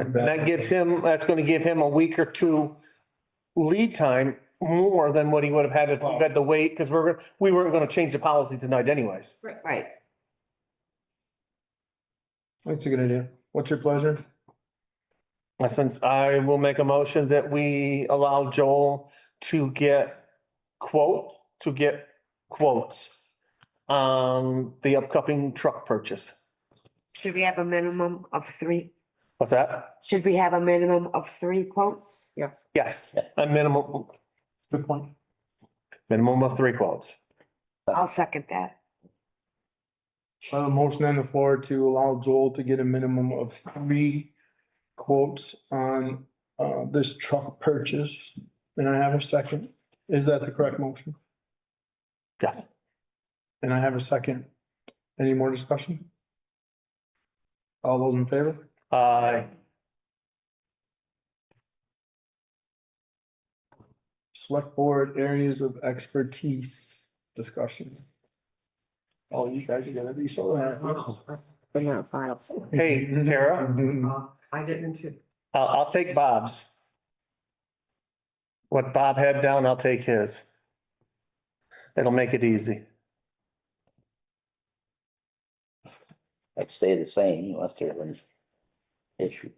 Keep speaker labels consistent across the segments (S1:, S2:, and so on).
S1: And that gives him, that's gonna give him a week or two lead time more than what he would have had if we had to wait, because we're, we weren't gonna change the policy tonight anyways.
S2: Right.
S3: That's a good idea. What's your pleasure?
S1: Since I will make a motion that we allow Joel to get quote, to get quotes on the upcoming truck purchase.
S2: Should we have a minimum of three?
S1: What's that?
S2: Should we have a minimum of three quotes? Yes.
S1: Yes, a minimum,
S4: Good point.
S1: minimum of three quotes.
S2: I'll second that.
S3: I have a Uh, motion on the floor to allow Joel to get a minimum of three quotes on uh this truck purchase. And I have a second. Is that the correct motion?
S1: Yes.
S3: And I have a second. Any more discussion? All those in favor?
S1: Uh,
S3: Select board areas of expertise discussion. Oh, you guys are gonna be so happy.
S2: But not files.
S1: hey, Tara?
S2: I didn't too.
S1: I'll, I'll take Bob's. What Bob had down, I'll take his. It'll make it easy.
S4: I'd stay the same unless there's an issue.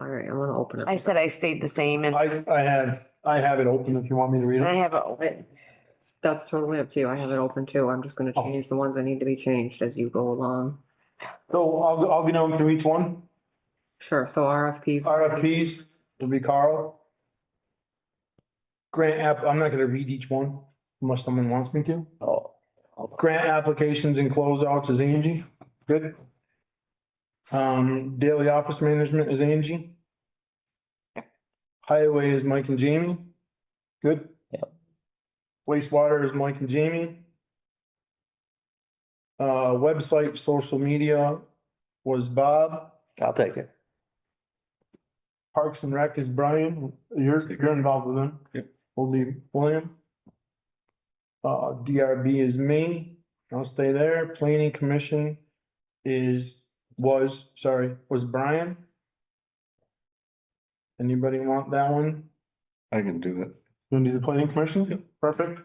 S5: All right, I'm gonna open it.
S2: I said I stayed the same and
S3: I I have, I have it open if you want me to read
S2: I
S3: it.
S2: have a, open.
S5: That's totally up to you. I have it open too. I'm just gonna
S3: Oh.
S5: change the ones that need to be changed as you go along.
S3: So I'll, I'll be down through each one.
S5: Sure, so RFPs.
S3: RFPs will be Carl. Grant app, I'm not gonna read each one unless someone wants me to.
S4: Oh,
S3: Grant applications and closeouts is Angie, good. Um, daily office management is Angie. Highway is Mike and Jamie, good.
S4: Yep.
S3: Wastewater is Mike and Jamie. Uh, website, social media was Bob.
S1: I'll take it.
S3: Parks and Rec is Brian, you're, you're involved with them. Yep. We'll leave William. Uh, DRB is me, I'll stay there, planning commission is, was, sorry, was Brian. Anybody want that one?
S6: I can do it.
S3: You need the planning commission? Perfect.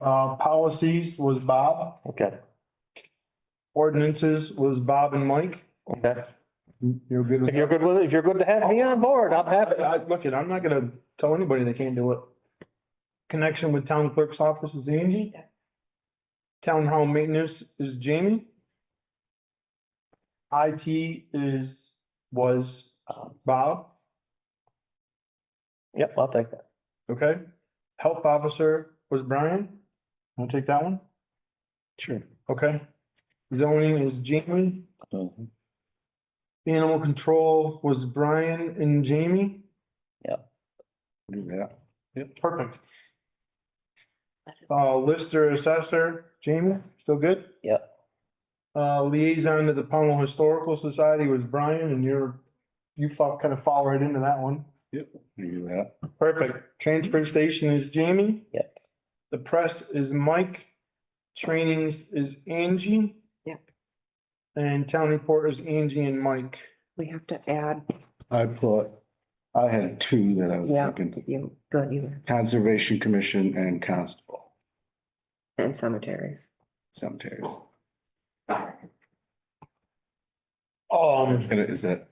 S3: Uh, policies was Bob,
S1: Okay,
S3: ordinances was Bob and Mike,
S1: okay.
S3: you're good with
S1: If
S3: that?
S1: you're good with it, if you're good to have me on board, I'm happy.
S3: I, I, look, it, I'm not gonna tell anybody they can't do it. Connection with town clerk's office is Angie. Town hall maintenance is Jamie. IT is, was um, Bob,
S1: Yep, I'll take that.
S3: okay? Health officer was Brian. Want to take that one?
S6: Sure.
S3: Okay. Zoning is Jamie.
S4: mhm.
S3: Animal control was Brian and Jamie.
S6: Do that.
S3: Perfect. Uh, Lister Assessor, Jamie, still good?
S4: Yep.
S3: Uh, liaison to the Pownell Historical Society was Brian and you're, you fall, kind of fall right into that one.
S6: Do that.
S3: Perfect. Transfer station is Jamie.
S4: Yep.
S3: The press is Mike. Trainings is Angie.
S2: Yep.
S3: And town report is Angie and Mike.
S5: We have to add,
S6: I put, I had two that I was
S5: Yeah.
S6: thinking,
S5: you, good, you,
S6: Conservation Commission and Constable
S5: and cemeteries.
S6: cemeteries.
S3: Um,
S6: It's gonna, is that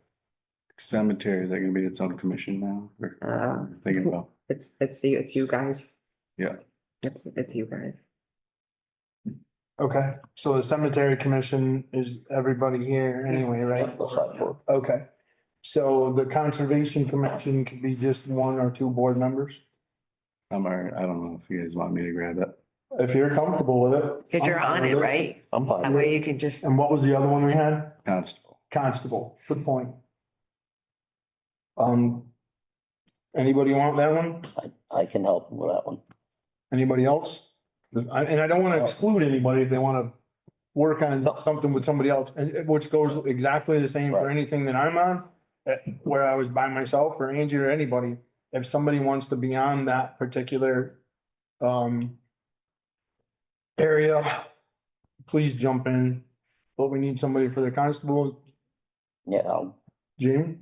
S6: cemetery, is that gonna be its own commission now? Or
S5: Uh,
S6: Thinking about,
S5: it's, it's you, it's you guys.
S6: Yeah.
S5: It's, it's you guys.
S3: okay, so the cemetery commission is everybody here anyway, right?
S4: Looks like we're-
S3: Okay, so the conservation commission could be just one or two board members,
S6: I'm, all right. I don't know if you guys want me to grab it.
S3: if you're comfortable with it.
S2: because you're on it, right?
S1: I'm
S2: That
S1: fine.
S2: way you can just,
S3: And what was the other one we had?
S6: Constable.
S3: Constable, good point. Um, anybody want that one?
S4: I- I can help with that one.
S3: Anybody else? I- And I don't want to exclude anybody if they want to work on something with somebody else, and- and which goes exactly the same for
S4: Right.
S3: anything that I'm on. uh, Where I was by myself or Angie or anybody, if somebody wants to be on that particular um area, please jump in. But we need somebody for the constable,
S4: Yeah, I'll
S3: Jamie?